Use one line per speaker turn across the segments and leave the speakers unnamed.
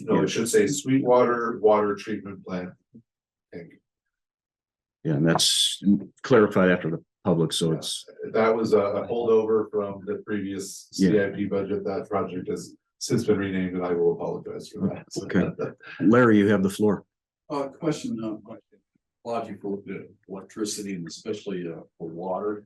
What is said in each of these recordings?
No, it should say Sweetwater Water Treatment Plant.
Yeah, and that's clarified after the public, so it's,
That was a- a holdover from the previous CIP budget. That project has since been renamed and I will apologize for that.
Okay. Larry, you have the floor.
Uh, question, uh, logical, electricity and especially, uh, for water,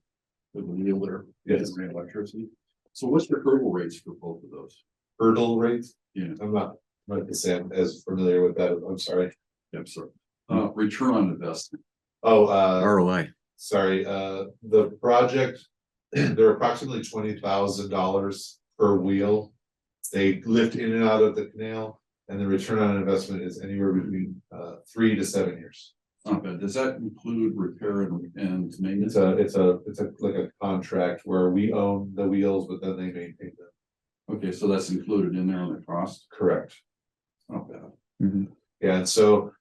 with the yield there.
Yes.
and Electricity. So what's the hurdle rates for both of those?
Hurdle rates?
Yeah.
I'm not, not the same as familiar with that. I'm sorry.
I'm sorry. Uh, return on investment.
Oh, uh,
ROI.
sorry, uh, the project, they're approximately twenty thousand dollars per wheel. They lift in and out of the canal and the return on investment is anywhere between uh three to seven years.
Not bad. Does that include repair and, and
It's
maintenance?
a, it's a, it's a, like a contract where we own the wheels, but then they maintain them.
Okay, so that's included in there on the cost?
Correct.
Not bad.
Yeah, and so.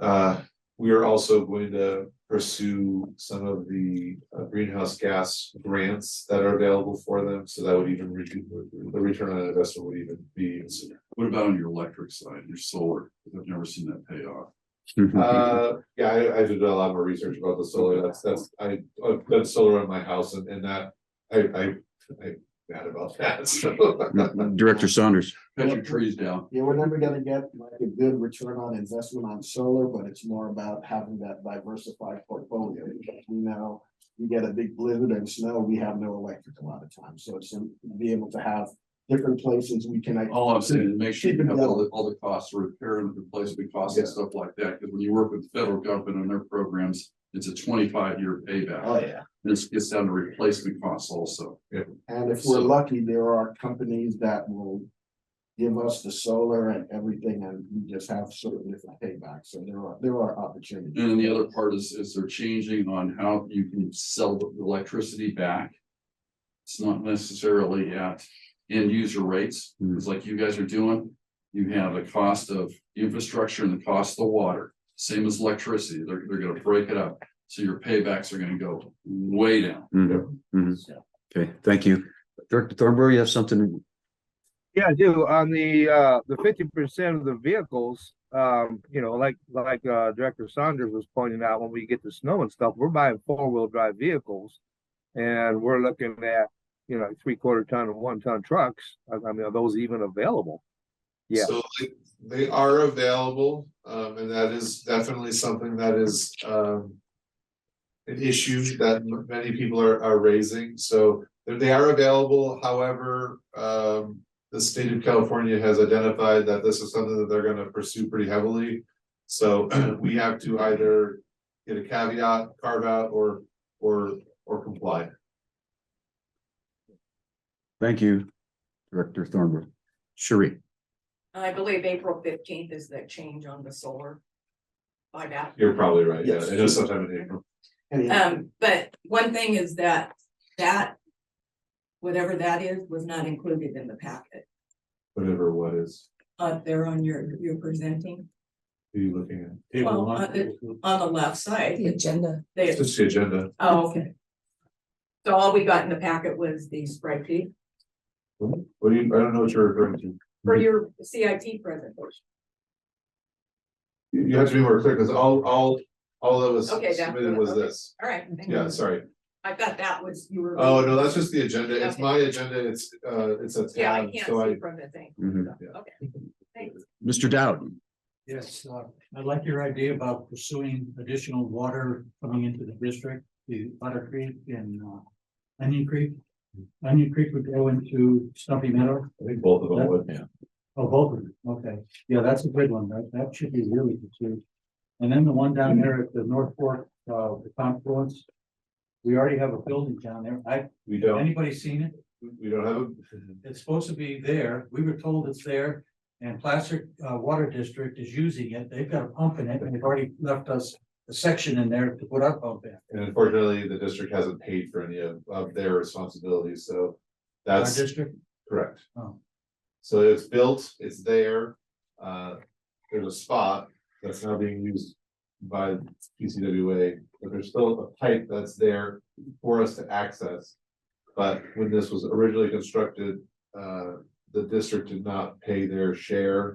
Uh, we are also going to pursue some of the uh, greenhouse gas grants that are available for them, so that would even reduce. The return on investment would even be sooner.
What about on your electric side, your solar? I've never seen that pay off.
Mm-hmm.
Uh, yeah, I, I did a lot more research about the solar, that's, that's, I, I've done solar on my house and, and that, I, I, I'm mad about that, so.
Director Saunders.
Cut your trees down.
Yeah, we're never gonna get like a good return on investment on solar, but it's more about having that diversified portfolio. Because we know you get a big blizzard and snow, we have no electric a lot of times, so it's to be able to have different places we can.
All I'm saying is make sure you
Keep it
have all the, all the costs, repair and replacement costs and stuff like that, because when you work with the federal government on their programs, it's a twenty-five year payback.
yeah.
This gets down to replacement costs also.
And if
So-
we're lucky, there are companies that will give us the solar and everything, and we just have certain different paybacks, so there are, there are opportunities.
And then the other part is, is they're changing on how you can sell the electricity back. It's not necessarily at end user rates, it's like you guys are doing. You have a cost of infrastructure and the cost of water, same as electricity, they're, they're gonna break it up. So your paybacks are gonna go way down.
Mhm, mhm. Okay, thank you. Director Thornburg, you have something?
Yeah, I do. On the uh the fifty percent of the vehicles, um, you know, like like uh Director Saunders was pointing out, when we get the snow and stuff, we're buying four-wheel drive vehicles. And we're looking at, you know, three-quarter ton and one-ton trucks. I I mean, are those even available? Yeah.
So like, they are available, um, and that is definitely something that is, um. An issue that m- many people are, are raising, so they- they are available, however, um. The state of California has identified that this is something that they're gonna pursue pretty heavily. So we have to either get a caveat, carve out, or, or, or comply.
Thank you, Director Thornburg. Sheree.
I believe April fifteenth is the change on the solar. Buyback.
You're probably right, yeah,
Yes.
it is sometime in April.
Any-
Um, but one thing is that, that. Whatever that is, was not included in the packet,
whatever what is,
up there on your, you're presenting,
who are you looking at?
Well, uh, it- on the left side. The agenda.
It's just the agenda.
oh, okay. So all we got in the packet was the spreadsheet
What do you, I don't know what you're referring to.
for your CIT presentation,
You, you have to be more clear, because all, all, all that was
Okay, that-
submitted was
okay.
this.
all right. thank you.
Yeah, sorry.
I thought that was, you were.
Oh, no, that's just the agenda. It's
Okay.
my agenda. It's, uh, it's a
Yeah, I
tab,
can't
so I,
see from the thing,
Mhm.
okay, thanks.
Mr. Dowd.
Yes, uh, I like your idea about pursuing additional water coming into the district, the Butter Creek and uh, Onion Creek. Onion Creek would go into Stumpy Meadow,
I think both of them would.
oh, both of them, okay, yeah, that's a good one, that, that should be really good too. And then the one down there at the North Fork, uh, the confluence. We already have a building down there, I,
We don't,
anybody seen it?
we don't have, a-
It's supposed to be there, we were told it's there, and Placer uh, Water District is using it, they've got a pump in it, and they've already left us a section in there to put our pump in.
and unfortunately, the district hasn't paid for any of, of their responsibilities, so
Our
that's
district,
correct.
oh,
So it's built, it's there, uh, there's a spot that's now being used by PCWA, but there's still a pipe that's there for us to access. But when this was originally constructed, uh, the district did not pay their share